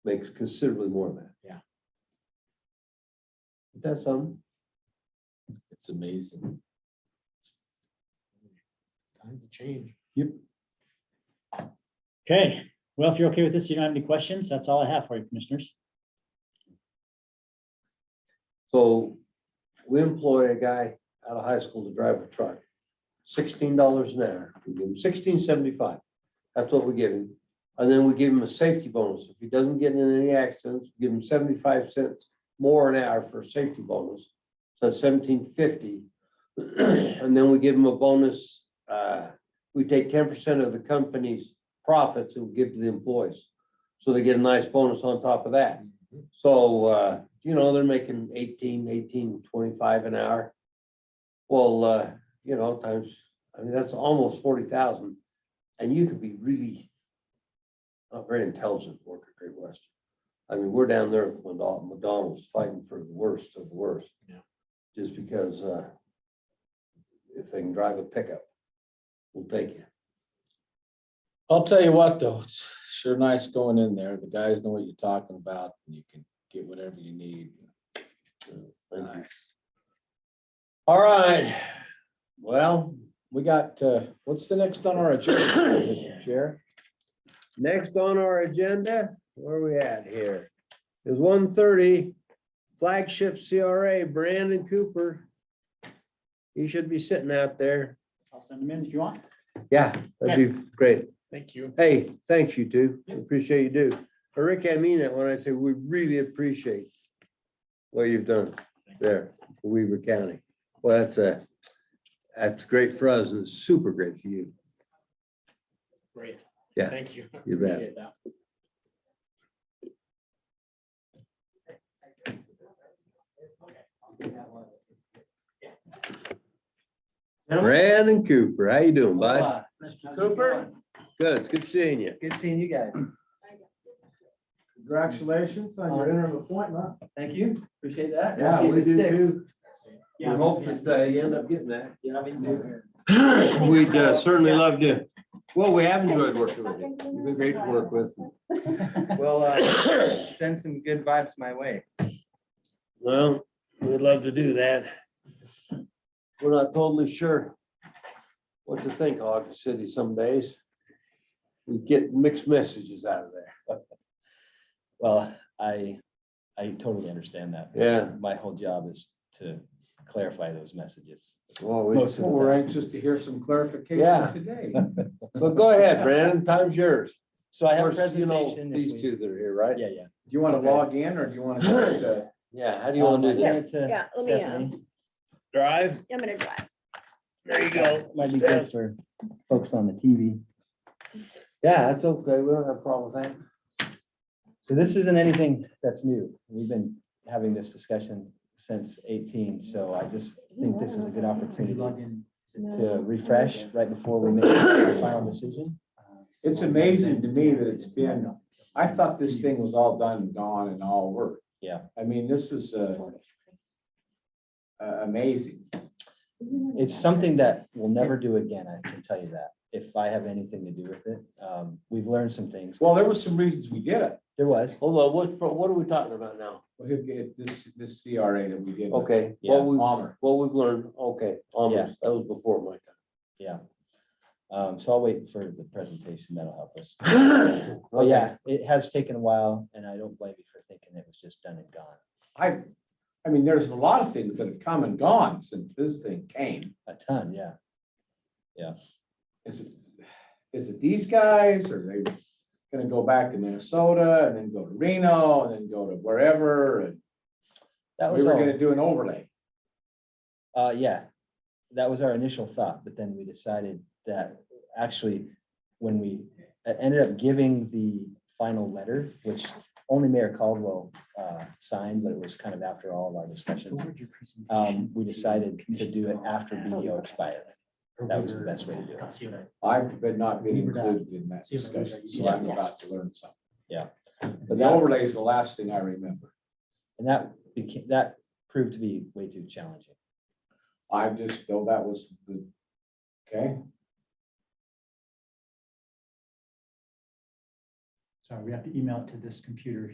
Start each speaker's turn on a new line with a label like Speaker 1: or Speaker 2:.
Speaker 1: makes considerably more than that.
Speaker 2: Yeah.
Speaker 1: That's some,
Speaker 2: It's amazing. Time to change.
Speaker 3: Okay, well, if you're okay with this, you don't have any questions, that's all I have for you, commissioners.
Speaker 1: so we employ a guy out of high school to drive a truck. Sixteen dollars an hour, we give him sixteen seventy-five, that's what we give him. And then we give him a safety bonus, if he doesn't get in any accidents, we give him seventy-five cents more an hour for a safety bonus. So that's seventeen fifty. And then we give him a bonus, uh, we take ten percent of the company's profits and we give to the employees. So they get a nice bonus on top of that. So, uh, you know, they're making 18, 18, 25 an hour. Well, uh, you know, times, I mean, that's almost forty thousand, and you could be really not very intelligent worker at Great Western. I mean, we're down there with McDonald- McDonald's fighting for the worst of the worst.
Speaker 2: Yeah.
Speaker 1: Just because, uh, if they can drive a pickup, we'll take you.
Speaker 2: I'll tell you what, though, it's sure nice going in there. The guys know what you're talking about, and you can get whatever you need.
Speaker 1: Thank you.
Speaker 2: Nice.
Speaker 1: All right, well,
Speaker 2: We got, uh, what's the next on our agenda, Mr. Chair?
Speaker 1: Next on our agenda, where are we at here? Is one thirty flagship CRA Brandon Cooper. He should be sitting out there.
Speaker 3: I'll send them in if you want.
Speaker 1: Yeah, that'd be great.
Speaker 2: Thank you.
Speaker 1: Hey, thanks you two. We Appreciate you do. And Rick, I mean that when I say we really appreciate what you've done there, for Weaver County. Well, that's a, that's great for us and it's super great for you.
Speaker 3: Great.
Speaker 1: Yeah.
Speaker 3: Thank you.
Speaker 1: You bet.
Speaker 3: Appreciate that.
Speaker 1: Brandon Cooper, how you doing, bud?
Speaker 4: Hola,
Speaker 3: How's
Speaker 4: Mr.
Speaker 3: it
Speaker 4: Cooper,
Speaker 3: going?
Speaker 1: Good, it's good seeing you.
Speaker 4: good seeing you guys.
Speaker 5: Congratulations on your interim appointment.
Speaker 4: Thank you, appreciate that.
Speaker 5: Yeah, we
Speaker 4: Appreciate
Speaker 5: do
Speaker 4: the sticks.
Speaker 5: too.
Speaker 1: We
Speaker 3: Yeah.
Speaker 1: hope that uh, you end up getting that.
Speaker 4: Yeah, me too.
Speaker 1: We'd uh, certainly love to. Well, we have enjoyed working with you. You've been great to work with.
Speaker 4: Well, uh, send some good vibes my way.
Speaker 1: Well, we'd love to do that. We're not totally sure what to think of Ogden City some days. We get mixed messages out of there.
Speaker 6: Well, I, I totally understand that.
Speaker 1: Yeah.
Speaker 6: My whole job is to clarify those messages.
Speaker 1: Well, we-
Speaker 6: Most of the
Speaker 5: We're
Speaker 6: time.
Speaker 5: anxious to hear some
Speaker 1: Yeah.
Speaker 5: clarification today.
Speaker 1: But go ahead, Brandon, time's yours.
Speaker 6: So I
Speaker 1: Of
Speaker 6: have a
Speaker 1: course, you know,
Speaker 6: presentation. if we-
Speaker 1: these two that are here, right?
Speaker 6: Yeah, yeah.
Speaker 5: Do you want
Speaker 6: Okay.
Speaker 5: to log in or do you want to?
Speaker 1: Yeah, how do you
Speaker 6: Um,
Speaker 1: want to do that?
Speaker 7: Yeah, let me, uh,
Speaker 1: Drive?
Speaker 7: I'm gonna drive.
Speaker 1: There you
Speaker 6: Might be good for folks on the TV.
Speaker 1: Yeah, that's okay. We don't have a problem with that.
Speaker 6: So this isn't anything that's new. We've been having this discussion since eighteen, so I just think this is a good opportunity to refresh right before we make our final decision.
Speaker 5: It's amazing to me that it's been, I thought this thing was all done and gone and all worked.
Speaker 6: Yeah.
Speaker 5: I mean, this is uh, uh, amazing.
Speaker 6: It's something that we'll never do again, I can tell you that, if I have anything to do with it. Um, We've learned some things.
Speaker 5: Well, there were some reasons we did it.
Speaker 6: There was.
Speaker 1: Hold on, what, what are we talking about now?
Speaker 5: Well, he'll get This, this CRA that we did.
Speaker 1: Okay,
Speaker 6: Yeah.
Speaker 1: what we,
Speaker 5: Palmer.
Speaker 1: what we've learned, okay, almost, that was before my
Speaker 6: Yeah. Um, so I'll wait for the presentation. That'll help us.
Speaker 1: time.
Speaker 6: Well, yeah, it has taken a while and I don't blame you for thinking it was just done and gone.
Speaker 5: I, I mean, there's a lot of things that have come and gone since this thing came.
Speaker 6: A ton, yeah.
Speaker 5: is it, is it these guys or are they gonna go back to Minnesota and then go to Reno and then go to wherever? And
Speaker 6: That
Speaker 5: we
Speaker 6: was
Speaker 5: were
Speaker 6: all,
Speaker 5: gonna do an overlay.
Speaker 6: uh, yeah. That was our initial thought, but then we decided that actually, when we uh, ended up giving the final letter, which only Mayor Caldwell, uh, signed, but it was kind of after all of our discussions. Um, we decided to do it after BDO expired. That was the best way to do it.
Speaker 3: See what I-
Speaker 5: I've been not been
Speaker 3: We were not-
Speaker 5: included in that
Speaker 3: See if I
Speaker 5: discussion, so
Speaker 3: remember.
Speaker 5: I'm about to learn something.
Speaker 6: Yeah.
Speaker 5: But the overlay is the last thing I remember.
Speaker 6: And that became, that proved to be way too challenging.
Speaker 5: I just, though that was the, okay,
Speaker 3: Sorry, we have to email it to this computer